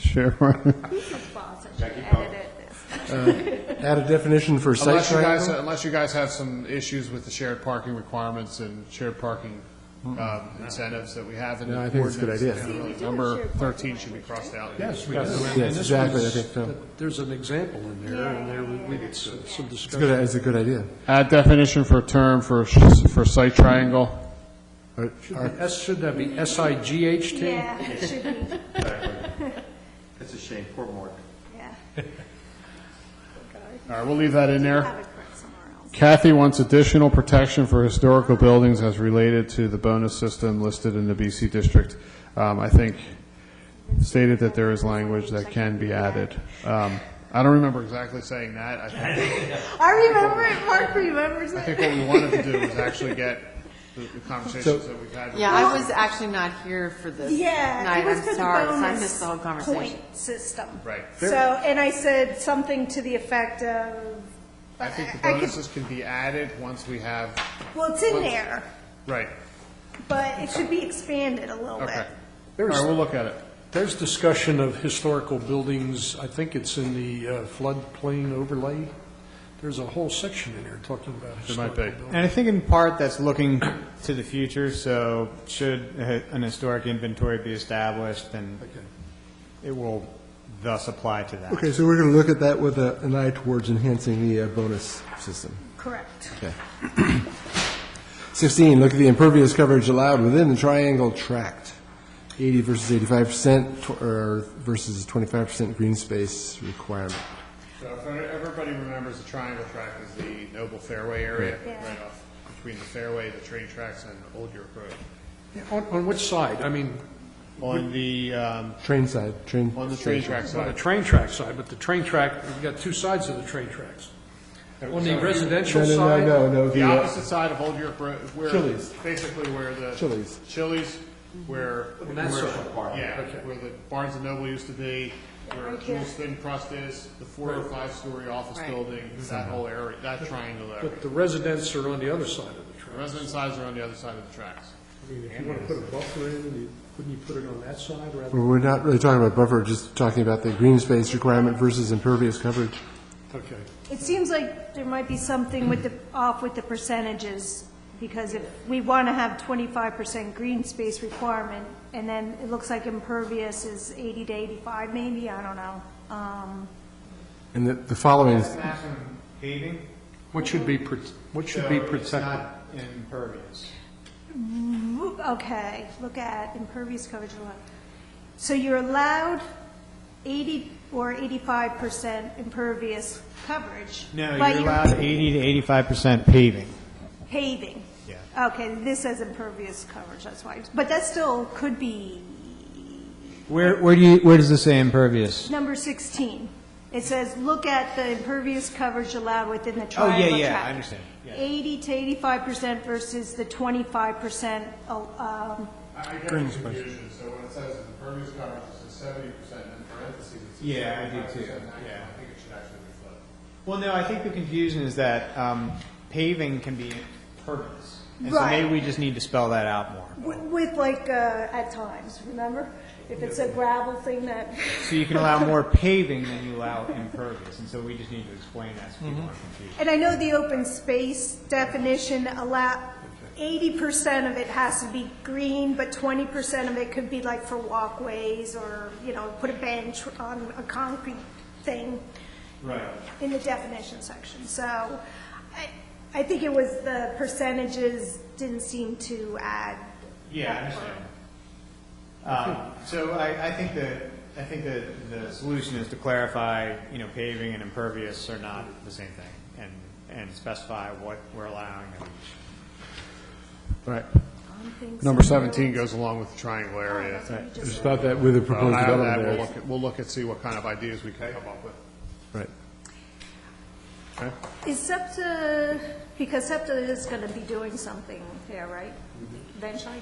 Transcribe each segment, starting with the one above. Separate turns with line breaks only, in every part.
Sure.
Becky Poe.
Add a definition for site
Unless you guys,
triangle?
unless you guys have some issues with the shared parking requirements and shared parking um, incentives that we have in the
No, I
ordinance.
think it's a good idea.
you know, Number 13 should be crossed out.
Yes, we do. And
Yes,
this
exactly,
was-
I think so.
There's an example in there, and there we- we had s- some
It's good, uh,
discussion.
it's a good idea.
Add definition for term for, for site triangle.
Or-
Should
or-
be S- Should that be S-I-G-H-T?
Yeah, it should be,
It's a shame, poor Mark.
yeah.
All right, we'll leave that in there.
Have it correct somewhere else.
Kathy wants additional protection for historical buildings as related to the bonus system listed in the BC district. Um, I think stated that there is language that can be added. Um, I don't remember exactly saying that. I think-
I remember it, Mark remembers
I
it.
think what we wanted to do was actually get the the conversations that we've had. with-
Yeah, I was actually not here for this
Yeah,
night,
it was
I'm
for the
sorry, 'cause I
bonus
missed the whole conversation.
point system.
Right.
So, and I said something to the effect of,
I think the
I- I could-
bonuses can be added once we have,
well, it's in
Well,
there,
right,
but it should be expanded a little
okay.
bit.
All right, we'll look at it.
There's discussion of historical buildings, I think it's in the uh, floodplain overlay. There's a whole section in there talking about
might
historical
be.
buildings.
And I think in part that's looking to the future, so should a- an historic inventory be established, then it will thus apply to that.
Okay, so we're going to look at that with a- an eye towards enhancing the uh, bonus system.
Correct.
Okay. 16, look at the impervious coverage allowed within the triangle tract. 80 versus 85 percent, or versus 25 percent green space requirement.
So if everybody remembers, the triangle track is the Noble Fairway area, right off between the fairway, the train tracks, and Old York Road.
On, on which side? I mean,
On the, um,
Train side, train.
on the train track
on the
side.
train track side, but the train track, you've got two sides of the train tracks. On the
No,
residential
no, no,
side,
no, no,
The
the, uh,
opposite side of Old York Road, where,
Chili's.
basically where the.
Chili's.
Chili's, where,
on that side.
yeah,
Okay.
where the Barnes and Noble used to be, where Jules Thin Crust is, the four or five story office
Right.
building,
Mm-hmm.
that whole area, that triangle area.
But the residents are on the other side of the
The
track.
resident sides are on the other side of the tracks.
I mean, if you want to put a buffer in, you- wouldn't you put it on that side rather
Well, We're not really talking about buffer, just talking about the green space requirement versus impervious coverage.
Okay.
It seems like there might be something with the, off with the percentages, because if we want to have twenty-five percent green space requirement, and then it looks like impervious is eighty to eighty-five maybe, I don't know. Um,
And the, the following is,
Maximum paving,
What should be, pro- what should be protected?
impervious.
whoop, Okay, look at impervious coverage allowed. So you're allowed eighty or eighty-five percent impervious coverage.
No,
but
you're allowed 80 to 85 percent paving.
Paving.
Yeah.
Okay, this says impervious coverage, that's why, but that still could be
Where, where do you, where does this say impervious?
Number 16, it says, "Look at the impervious coverage allowed within the
Oh, yeah,
triangle tract."
yeah, I understand, yeah.
80 to 85 percent versus the 25 percent, um,
I get the confusion, so when it says impervious coverage is seventy percent, in parentheses, it's.
Yeah, I do
75%,
too, yeah.
I think it should actually be flipped.
Well, no, I think the confusion is that um, paving can be impervious. And so
Right.
maybe we just need to spell that out more.
wi- with like, uh, at times, remember? If it's a gravel thing that,
So you can allow more paving than you allow impervious, and so we just need to explain that so people aren't confused.
and I know the open space definition allow, 80 percent of it has to be green, but 20 percent of it could be like for walkways or, you know, put a bench on a concrete thing.
Right.
in the definition section. So I, I think it was the percentages didn't seem to add.
Yeah, I understand. Um, So I, I think that, I think that the solution is to clarify, you know, paving and impervious are not the same thing, and, and specify what we're allowing of each.
Right.
things.
Number 17 goes along with the triangle area.
just thought that with the
Well,
proposed
I- I- We'll
development
look, at- we'll look and see what kind of ideas we can come up with.
there. Right.
Is SEPTA, because SEPTA is going to be doing something there, right?
Mm-hmm.
Eventually?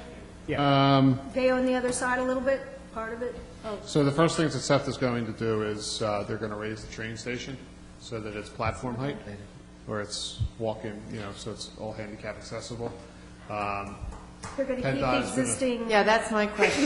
Um,
They on the other side a little bit, part of it? Oh,
So the first things that Seth is going to do is, uh, they're going to raise the train station so that it's platform height, or it's walk-in, you know, so it's all handicap accessible. Um,
they're going to
PennDOT is
keep
gonna-
existing.
Yeah, that's my question.